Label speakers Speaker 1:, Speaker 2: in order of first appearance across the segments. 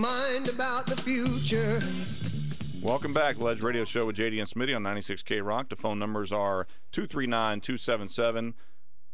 Speaker 1: mind about the future.
Speaker 2: Welcome back, Ledge Radio Show with JD and Smitty on 96K Rock. The phone numbers are 239 277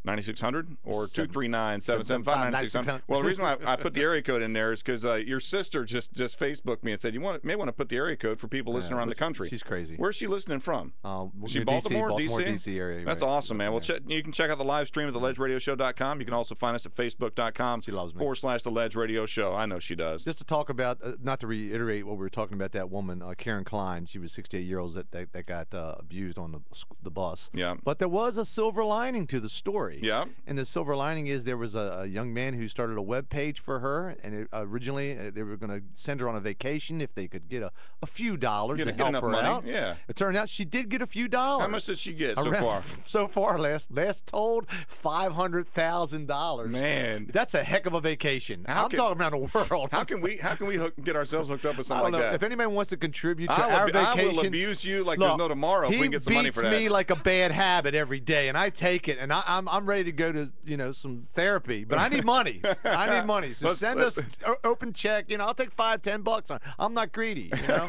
Speaker 2: 9600 or 239 775 9600. Well, the reason why I, I put the area code in there is because uh, your sister just just Facebooked me and said you want may want to put the area code for people listening around the country.
Speaker 3: she's crazy.
Speaker 2: Where's she listening from?
Speaker 3: Um,
Speaker 2: Is she
Speaker 3: near
Speaker 2: Baltimore,
Speaker 3: DC, Baltimore, DC area,
Speaker 2: That's
Speaker 3: right.
Speaker 2: awesome, man. Well, check, you can check out the live stream at theledgeradioshow.com. You can also find us at facebook.com
Speaker 3: She loves me.
Speaker 2: forward slash the Ledge Radio Show. I know she does.
Speaker 3: Just to talk about, uh, not to reiterate what we were talking about, that woman, uh, Karen Klein, she was 68 years old that, that, that got uh, abused on the, sc- the bus.
Speaker 2: Yeah.
Speaker 3: But there was a silver lining to the story.
Speaker 2: Yeah.
Speaker 3: And the silver lining is there was a, a young man who started a web page for her, and it, originally uh, they were going to send her on a vacation if they could get a, a few dollars
Speaker 2: Get-
Speaker 3: to
Speaker 2: get
Speaker 3: help
Speaker 2: enough
Speaker 3: her
Speaker 2: money,
Speaker 3: out.
Speaker 2: yeah.
Speaker 3: It turned out she did get a few dollars.
Speaker 2: How much did she get so
Speaker 3: Around-
Speaker 2: far?
Speaker 3: So far, last last told five hundred thousand dollars.
Speaker 2: Man.
Speaker 3: that's a heck of a vacation.
Speaker 2: How
Speaker 3: I'm
Speaker 2: can-
Speaker 3: talking around the world.
Speaker 2: How can we how can we hook, get ourselves hooked up with
Speaker 3: I
Speaker 2: something
Speaker 3: don't know
Speaker 2: like
Speaker 3: if
Speaker 2: that?
Speaker 3: anybody wants to contribute to
Speaker 2: I will
Speaker 3: our
Speaker 2: be- I will
Speaker 3: vacation.
Speaker 2: abuse you like there's no tomorrow if
Speaker 3: He
Speaker 2: we can get some money for
Speaker 3: beats me
Speaker 2: that.
Speaker 3: like a bad habit every day, and I take it, and I, I'm I'm ready to go to you know some therapy, but I need money. I need money. So
Speaker 2: Let's-
Speaker 3: send us o- open check. You know, I'll take five, ten bucks. on I'm not greedy. You know.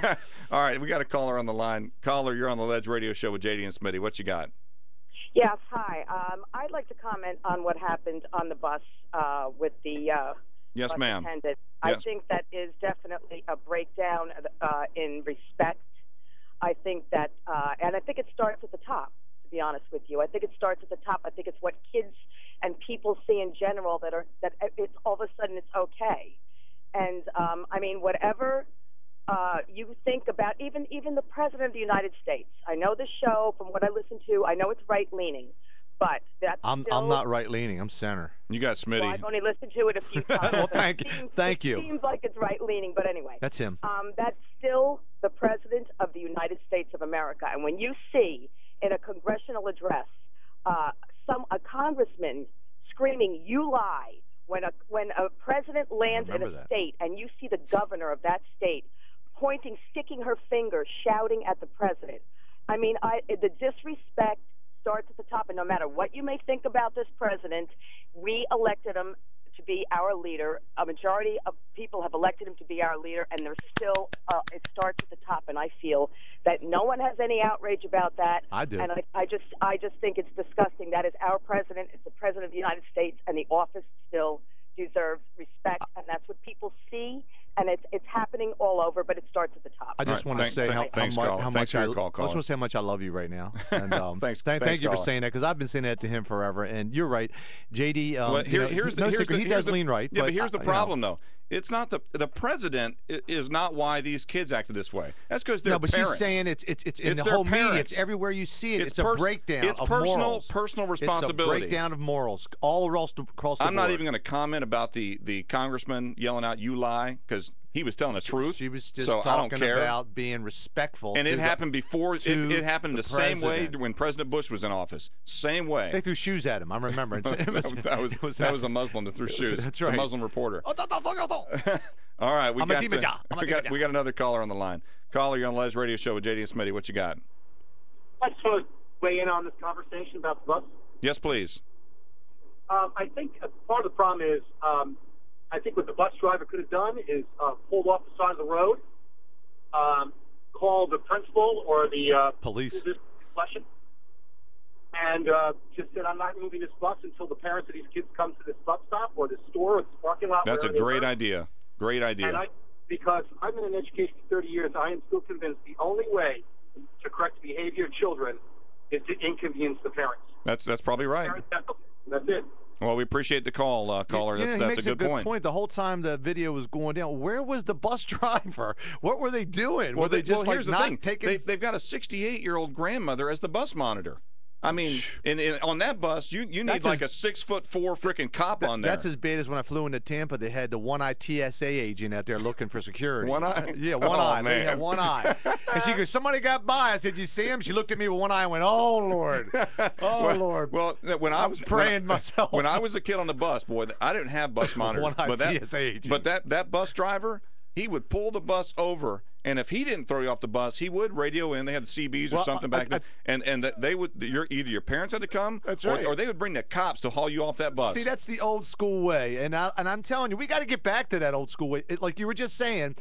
Speaker 2: All right, we got a caller on the line. Caller, you're on the Ledge Radio Show with JD and Smitty. What you got?
Speaker 4: Yes, hi. Um, I'd like to comment on what happened on the bus uh, with the uh,
Speaker 2: Yes,
Speaker 4: bus
Speaker 2: ma'am.
Speaker 4: attendant. I
Speaker 2: Yes.
Speaker 4: think that is definitely a breakdown uh, in respect. I think that, uh, and I think it starts at the top. To be honest with you, I think it starts at the top. I think it's what kids and people see in general that are that it's all of a sudden it's okay. And um, I mean, whatever uh, you think about, even even the president of the United States. I know the show from what I listen to. I know it's right leaning, but that's
Speaker 3: I'm
Speaker 4: still,
Speaker 3: I'm not right leaning. I'm center.
Speaker 2: You got
Speaker 4: well,
Speaker 2: Smitty.
Speaker 4: I've only listened to it a few times.
Speaker 3: Well,
Speaker 4: but
Speaker 3: thank-
Speaker 4: it seems-
Speaker 3: thank you.
Speaker 4: It seems like it's right leaning, but anyway,
Speaker 3: That's him.
Speaker 4: um, that's still the president of the United States of America. And when you see in a congressional address uh, some a congressman screaming "You lie," when a when a president lands in a
Speaker 3: remember that.
Speaker 4: state and you see the governor of that state pointing, sticking her finger, shouting at the president. I mean, I, the disrespect starts at the top, and no matter what you may think about this president, we elected him to be our leader. A majority of people have elected him to be our leader, and there's still uh, it starts at the top. And I feel that no one has any outrage about that.
Speaker 3: I do.
Speaker 4: and I, I just I just think it's disgusting. That is our president. It's the president of the United States, and the office still deserves respect,
Speaker 3: Uh,
Speaker 4: and that's what people see. And it's it's happening all over, but it starts at the top.
Speaker 3: I just
Speaker 2: right,
Speaker 3: want to
Speaker 2: thank-
Speaker 3: say
Speaker 2: thank-
Speaker 3: how,
Speaker 2: thanks,
Speaker 3: how much,
Speaker 2: caller.
Speaker 3: how
Speaker 2: Thanks
Speaker 3: much
Speaker 2: for
Speaker 3: I,
Speaker 2: your call,
Speaker 3: I
Speaker 2: caller.
Speaker 3: just want to say how much I love you right now. And, um,
Speaker 2: Thanks-
Speaker 3: thank-
Speaker 2: thanks,
Speaker 3: thank you for
Speaker 2: caller.
Speaker 3: saying that because I've been saying that to him forever, and you're right, JD. Um,
Speaker 2: Well,
Speaker 3: you
Speaker 2: here-
Speaker 3: know,
Speaker 2: here's the,
Speaker 3: no
Speaker 2: here's
Speaker 3: secret,
Speaker 2: the-
Speaker 3: he
Speaker 2: here's
Speaker 3: does
Speaker 2: the-
Speaker 3: lean right.
Speaker 2: Yeah, but here's the
Speaker 3: I- you know,
Speaker 2: problem though. It's not the the president i- is not why these kids acted this way. That's because they're
Speaker 3: No, but
Speaker 2: parents.
Speaker 3: she's saying it's it's it's in
Speaker 2: It's
Speaker 3: the
Speaker 2: their
Speaker 3: whole media.
Speaker 2: parents.
Speaker 3: It's everywhere you see it. It's, a
Speaker 2: pers-
Speaker 3: breakdown.
Speaker 2: It's
Speaker 3: of
Speaker 2: personal
Speaker 3: morals.
Speaker 2: personal responsibility.
Speaker 3: It's a breakdown of morals all across the, across the
Speaker 2: I'm not
Speaker 3: board.
Speaker 2: even going to comment about the the congressman yelling out "you lie" because he was telling the truth.
Speaker 3: She was just
Speaker 2: so I don't
Speaker 3: talking
Speaker 2: care.
Speaker 3: about being respectful.
Speaker 2: and
Speaker 3: to
Speaker 2: it
Speaker 3: the-
Speaker 2: happened before. It,
Speaker 3: to
Speaker 2: it happened the,
Speaker 3: the
Speaker 2: same way
Speaker 3: president.
Speaker 2: when President Bush was in office. Same
Speaker 3: They
Speaker 2: way.
Speaker 3: threw shoes at him. I remember. It's- it was,
Speaker 2: that was,
Speaker 3: it was
Speaker 2: that was a Muslim that threw
Speaker 3: was-
Speaker 2: shoes.
Speaker 3: that's
Speaker 2: It was A
Speaker 3: right.
Speaker 2: Muslim reporter.
Speaker 3: Oh, don't- don't- don't- don't.
Speaker 2: All right, we
Speaker 3: I'm a
Speaker 2: got
Speaker 3: demon,
Speaker 2: to-
Speaker 3: yeah. I'm a
Speaker 2: we got
Speaker 3: demon,
Speaker 2: we got another caller on the line. Caller, you're on Les Radio Show with JD and Smitty. What you got?
Speaker 5: I just want to weigh in on this conversation about the bus.
Speaker 2: Yes, please.
Speaker 5: Um, I think uh, part of the problem is, um, I think what the bus driver could have done is uh, pulled off the side of the road, um, called the principal or the uh,
Speaker 3: Police.
Speaker 5: this question, and uh, just said, "I'm not moving this bus until the parents of these kids come to this bus stop or this store or this parking lot."
Speaker 2: That's a
Speaker 5: wherever they
Speaker 2: great
Speaker 5: were."
Speaker 2: idea. Great idea.
Speaker 5: And I, because I've been in education for 30 years, I am still convinced the only way to correct the behavior of children is to inconvenience the parents.
Speaker 2: that's that's probably right.
Speaker 5: Parents have to- That's it.
Speaker 2: Well, we appreciate the call, uh, caller.
Speaker 3: You know,
Speaker 2: that's
Speaker 3: he
Speaker 2: that's
Speaker 3: makes
Speaker 2: a good,
Speaker 3: point. The whole time the video was going down, where was the bus driver? What were they doing? were they
Speaker 2: the-
Speaker 3: just like
Speaker 2: here's the
Speaker 3: not
Speaker 2: thing.
Speaker 3: taking?
Speaker 2: They, they've got a 68 year old grandmother as the bus monitor. I mean, and, and on that bus, you you need
Speaker 3: That's
Speaker 2: like
Speaker 3: as-
Speaker 2: a six foot four freaking cop on there.
Speaker 3: That's as bad as when I flew into Tampa. They had the one eye TSA agent out there looking for security.
Speaker 2: One eye?
Speaker 3: Yeah, one
Speaker 2: Oh,
Speaker 3: eye. They
Speaker 2: man.
Speaker 3: had one eye. And she goes, "Somebody got by." I said, "You see him?" She looked at me with one eye and went, "Oh Lord, oh Lord."
Speaker 2: Well, uh, when I,
Speaker 3: I was
Speaker 2: when I-
Speaker 3: praying myself.
Speaker 2: When I was a kid on the bus, boy, I didn't have bus monitors.
Speaker 3: One-eyed
Speaker 2: but, that,
Speaker 3: TSA agent.
Speaker 2: but that that bus driver, he would pull the bus over, and if he didn't throw you off the bus, he would radio in. They had CBs or
Speaker 6: Well,
Speaker 2: something
Speaker 6: I-
Speaker 2: back
Speaker 6: I-
Speaker 2: then, and and that they would. Your either your parents had to come,
Speaker 6: That's
Speaker 2: or-
Speaker 6: right.
Speaker 2: or, they would bring the cops to haul you off that bus.
Speaker 3: See, that's the old school way, and I, and I'm telling you, we got to get back to that old school way. It, like you were just saying,